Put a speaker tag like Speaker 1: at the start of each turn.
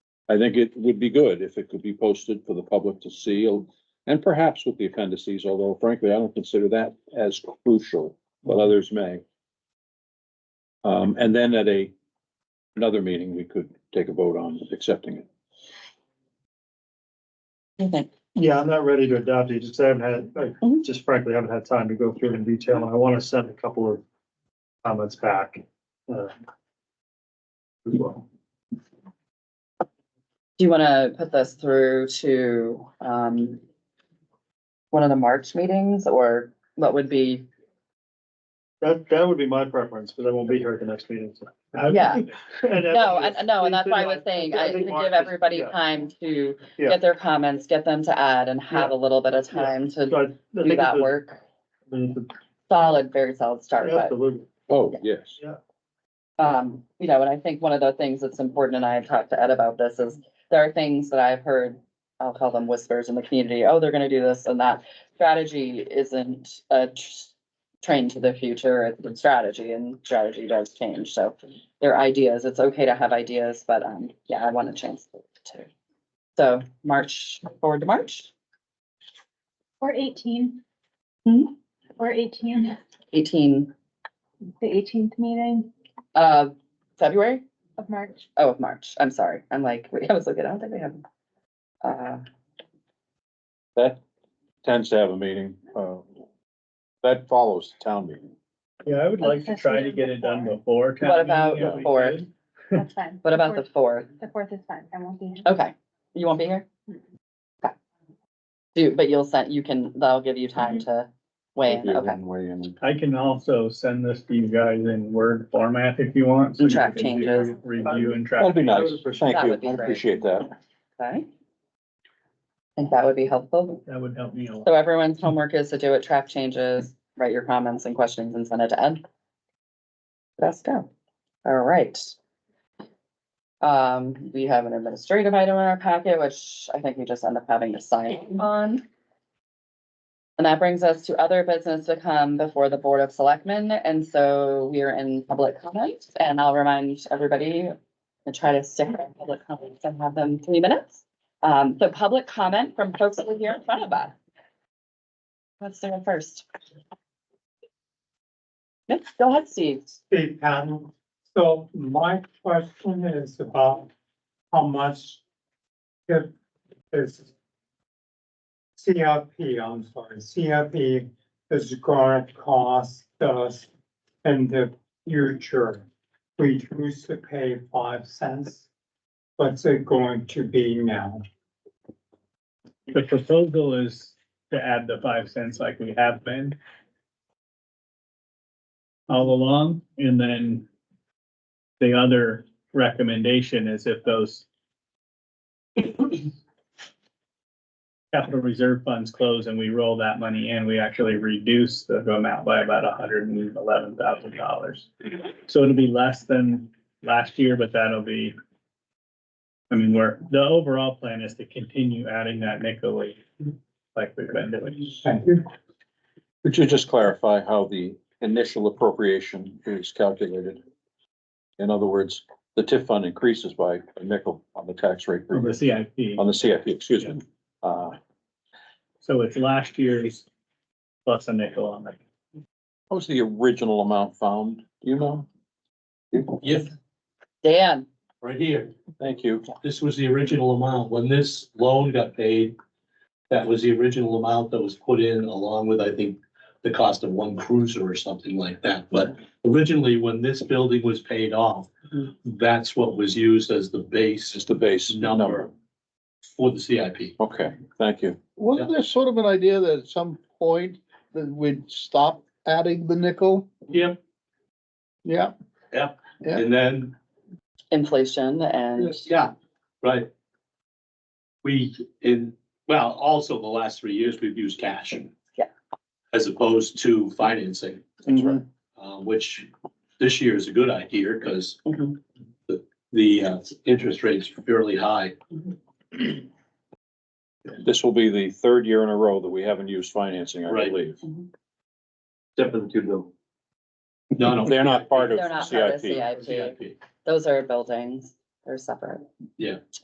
Speaker 1: I think it would be good if it could be posted for the public to see and perhaps with the appendices, although frankly, I don't consider that as crucial, but others may. Um, and then at a, another meeting, we could take a vote on accepting it.
Speaker 2: Okay.
Speaker 3: Yeah, I'm not ready to adopt it, just I haven't had, I
Speaker 2: Mhm.
Speaker 3: just frankly haven't had time to go through it in detail, and I want to send a couple of comments back. uh, as well.
Speaker 2: Do you want to put this through to, um, one of the March meetings or what would be,
Speaker 3: That, that would be my preference, because I won't be here at the next meeting. so.
Speaker 2: Yeah.
Speaker 3: And that's-
Speaker 2: no, and, no, and that's why I was saying, I, to
Speaker 3: think March
Speaker 2: give
Speaker 3: is-
Speaker 2: everybody
Speaker 3: yeah.
Speaker 2: time to
Speaker 3: Yeah.
Speaker 2: get their comments, get them to add and have a little bit of
Speaker 3: Yeah.
Speaker 2: time to
Speaker 3: So I- I think
Speaker 2: do
Speaker 3: it's
Speaker 2: that
Speaker 3: a-
Speaker 2: work.
Speaker 3: I mean, it's
Speaker 2: Solid, very solid
Speaker 3: a-
Speaker 2: start, but,
Speaker 3: Absolutely.
Speaker 1: Oh, yes.
Speaker 2: um, you know, and I think one of the things that's important, and I have talked to Ed about this, is there are things that I've heard, I'll call them whispers in the community, oh, they're gonna do this and that. Strategy isn't a tr- train to the future, it's a strategy and strategy does change, so there are ideas, it's okay to have ideas, but, um, yeah, I want to change it too. So March, forward to March,
Speaker 4: Or eighteen.
Speaker 2: Hmm?
Speaker 4: Or eighteen,
Speaker 2: eighteen,
Speaker 4: the eighteenth meeting
Speaker 2: uh, February?
Speaker 4: of March.
Speaker 2: Oh, of March, I'm sorry, I'm like, wait, I was looking, I don't think we have. Uh,
Speaker 1: That tends to have a meeting, uh, that follows the town meeting.
Speaker 5: Yeah, I would like to
Speaker 4: That's
Speaker 5: try to
Speaker 4: actually
Speaker 5: get it done
Speaker 4: before.
Speaker 5: before. town
Speaker 2: What
Speaker 5: meeting,
Speaker 2: about
Speaker 5: if
Speaker 2: the
Speaker 5: we
Speaker 2: fourth?
Speaker 5: could.
Speaker 4: That's fine.
Speaker 2: what about the
Speaker 4: fourth-
Speaker 2: fourth?
Speaker 4: The fourth is fine. I won't be here.
Speaker 2: Okay, you won't be here? Okay. Do, but you'll send, you can, that'll give you time
Speaker 5: Mm-hmm.
Speaker 2: to weigh in,
Speaker 1: Yeah,
Speaker 2: okay.
Speaker 1: Way in.
Speaker 5: I can also send this to you guys in Word format if you want. so
Speaker 2: And
Speaker 5: you
Speaker 2: track
Speaker 5: can do
Speaker 2: changes.
Speaker 5: Review and track.
Speaker 1: That'd be nice.
Speaker 3: would appreciate-
Speaker 1: Thank
Speaker 2: That
Speaker 1: you.
Speaker 2: would be
Speaker 1: I
Speaker 2: great.
Speaker 1: appreciate that.
Speaker 2: Okay. I think that would be helpful.
Speaker 5: That would help me a lot.
Speaker 2: So everyone's homework is to do it, track changes, write your comments and questions and send it to Ed. Let's go. All right. Um, we have an administrative item in our packet, which I think we just end up having to sign on. And that brings us to other business to come before the Board of Selectmen, and so we are in public comments, and I'll remind everybody to try to stick around public comments and have them three minutes. Um, so public comment from folks that were here in front of us. Let's start first. Yep, go ahead, Steve.
Speaker 6: big panel. So my question is about how much if this CRP, I'm sorry, CRP is gonna cost us in the future. We choose to pay five cents. What's it going to be now?
Speaker 5: The proposal is to add the five cents like we have been all along, and then the other recommendation is if those capital reserve funds close and we roll that money in, we actually reduce the amount by about hundred and eleven thousand dollars. So it'll be less than last year, but that'll be I mean, we're, the overall plan is to continue adding that nickel like we've been doing.
Speaker 6: Thank you.
Speaker 1: Could you just clarify how the initial appropriation is calculated? In other words, the TIF fund increases by a nickel on the tax rate,
Speaker 5: From the CIP,
Speaker 1: on the CIP, excuse me. Uh,
Speaker 5: so it's last year's plus a nickel on it.
Speaker 1: what was the original amount found? Do you know?
Speaker 7: Yes,
Speaker 2: Dan,
Speaker 7: right here.
Speaker 1: Thank you.
Speaker 7: This was the original amount. When this loan got paid, that was the original amount that was put in along with, I think, the cost of one cruiser or something like that. But originally, when this building was paid off, that's what was used as the
Speaker 1: It's
Speaker 7: base
Speaker 1: the base number.
Speaker 7: number for the CIP.
Speaker 1: Okay, thank you.
Speaker 8: Wasn't there sort of an idea that at some point that we'd stop adding the nickel?
Speaker 7: Yep.
Speaker 8: Yeah, Yeah.
Speaker 7: And then,
Speaker 2: inflation and
Speaker 7: yeah, right. We, in, well, also the last three years, we've used cash.
Speaker 2: Yeah.
Speaker 7: As opposed to financing.
Speaker 2: That's right.
Speaker 7: uh, which this year is a good idea because
Speaker 2: Mhm.
Speaker 7: the, the uh, interest rate's fairly high.
Speaker 1: This will be the third year in a row that we haven't used financing, I
Speaker 7: Right.
Speaker 1: believe.
Speaker 7: Definitely. No, no.
Speaker 1: They're not part
Speaker 2: They're not
Speaker 1: of
Speaker 2: part of
Speaker 1: CIP.
Speaker 2: CIP. those are buildings, they're separate.